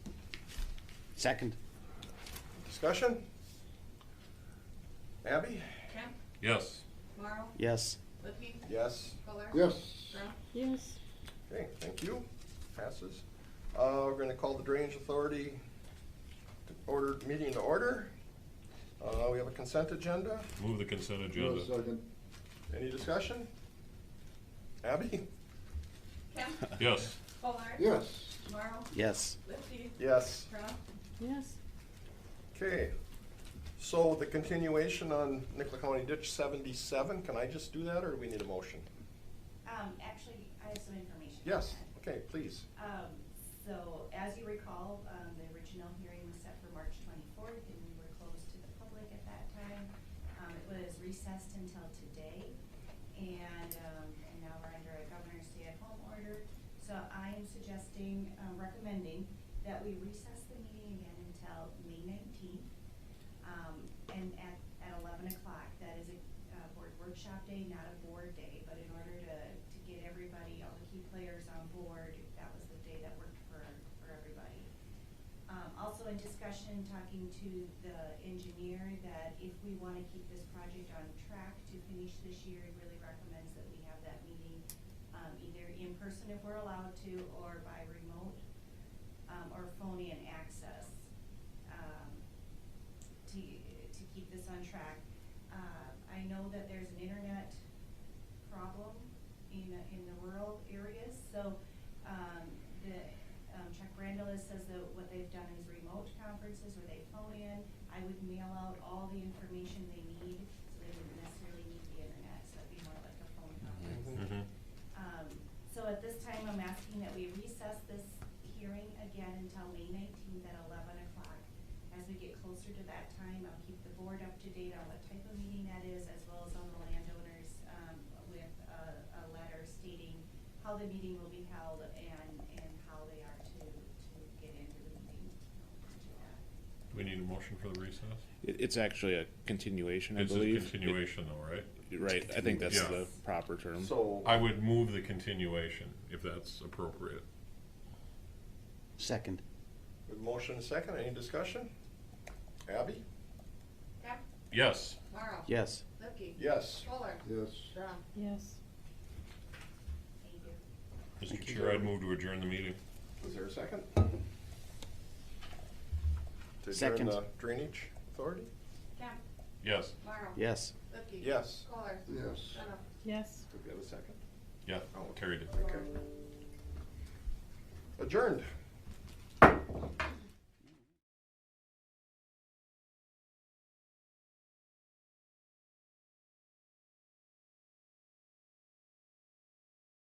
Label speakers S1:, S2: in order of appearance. S1: Second.
S2: Discussion? Abby?
S3: Kemp,
S4: Yes.
S3: Morrow,
S1: Yes.
S3: Lippy,
S2: Yes.
S3: Fuller.
S5: Yes.
S3: Brown.
S6: Yes.
S2: Okay, thank you. Passes. Uh, we're gonna call the Drainage Authority to order, meeting to order. Uh, we have a consent agenda.
S4: Move the consent
S5: No
S4: agenda.
S5: second.
S2: Any discussion? Abby?
S3: Kemp,
S4: Yes.
S3: Fuller.
S5: Yes.
S3: Morrow,
S1: Yes.
S3: Lippy,
S2: Yes.
S3: Brown.
S6: Yes.
S2: Okay. So the continuation on Nicola County Ditch seventy-seven, can I just do that or do we need a motion?
S7: Um, actually, I have some information. on
S2: Yes,
S7: that.
S2: okay, please.
S7: Um, so as you recall, um, the original hearing was set for March twenty-fourth and we were closed to the public at that time. Um, it was recessed until today and, um, and now we're under a governor's stay-at-home order. So I am suggesting, um, recommending that we recess the meeting again until May nineteenth. Um, and at, at eleven o'clock, that is a, uh, board workshop day, not a board day, but in order to, to get everybody, all the key players on board, that was the day that worked for, for everybody. Um, also in discussion, talking to the engineer, that if we wanna keep this project on track to finish this year, he really recommends that we have that meeting, um, either in person if we're allowed to, or by remote, um, or phone in access. Um, to, to keep this on track. Uh, I know that there's an internet problem in, in the rural areas, so, um, the, um, Chuck Brandelis says that what they've done is remote conferences where they phone in. I would mail out all the information they need, so they wouldn't necessarily need the internet, so it'd be more like a phone conference.
S4: Mhm.
S7: Um, so at this time, I'm asking that we recess this hearing again until May nineteenth at eleven o'clock. As we get closer to that time, I'll keep the board up to date on what type of meeting that is, as well as on the landowners, um, with a, a letter stating how the meeting will be held and, and how they are to, to get into the meeting.
S4: Do we need a motion for the recess?
S8: It, it's actually a continuation, I
S4: It's a
S8: believe.
S4: continuation though, right?
S8: It- Right, I think that's
S4: Yeah.
S8: the proper term.
S2: So,
S4: I would move the continuation if that's appropriate.
S1: Second.
S2: with motion and second, any discussion? Abby?
S3: Kemp,
S4: Yes.
S3: Morrow.
S1: Yes.
S3: Lippy.
S2: Yes.
S3: Fuller.
S5: Yes.
S3: Brown.
S6: Yes.
S7: Thank you.
S4: Mr. Chair, I'd move to adjourn the meeting.
S2: Is there a second? To adjourn
S1: Second.
S2: the Drainage Authority?
S3: Kemp,
S4: Yes.
S3: Morrow.
S1: Yes.
S3: Lippy.
S2: Yes.
S3: Fuller.
S5: Yes.
S3: Brown.
S6: Yes.
S2: Did we have a second?
S4: Yeah,
S2: Oh, okay.
S4: carried it.
S2: Okay. Adjourned.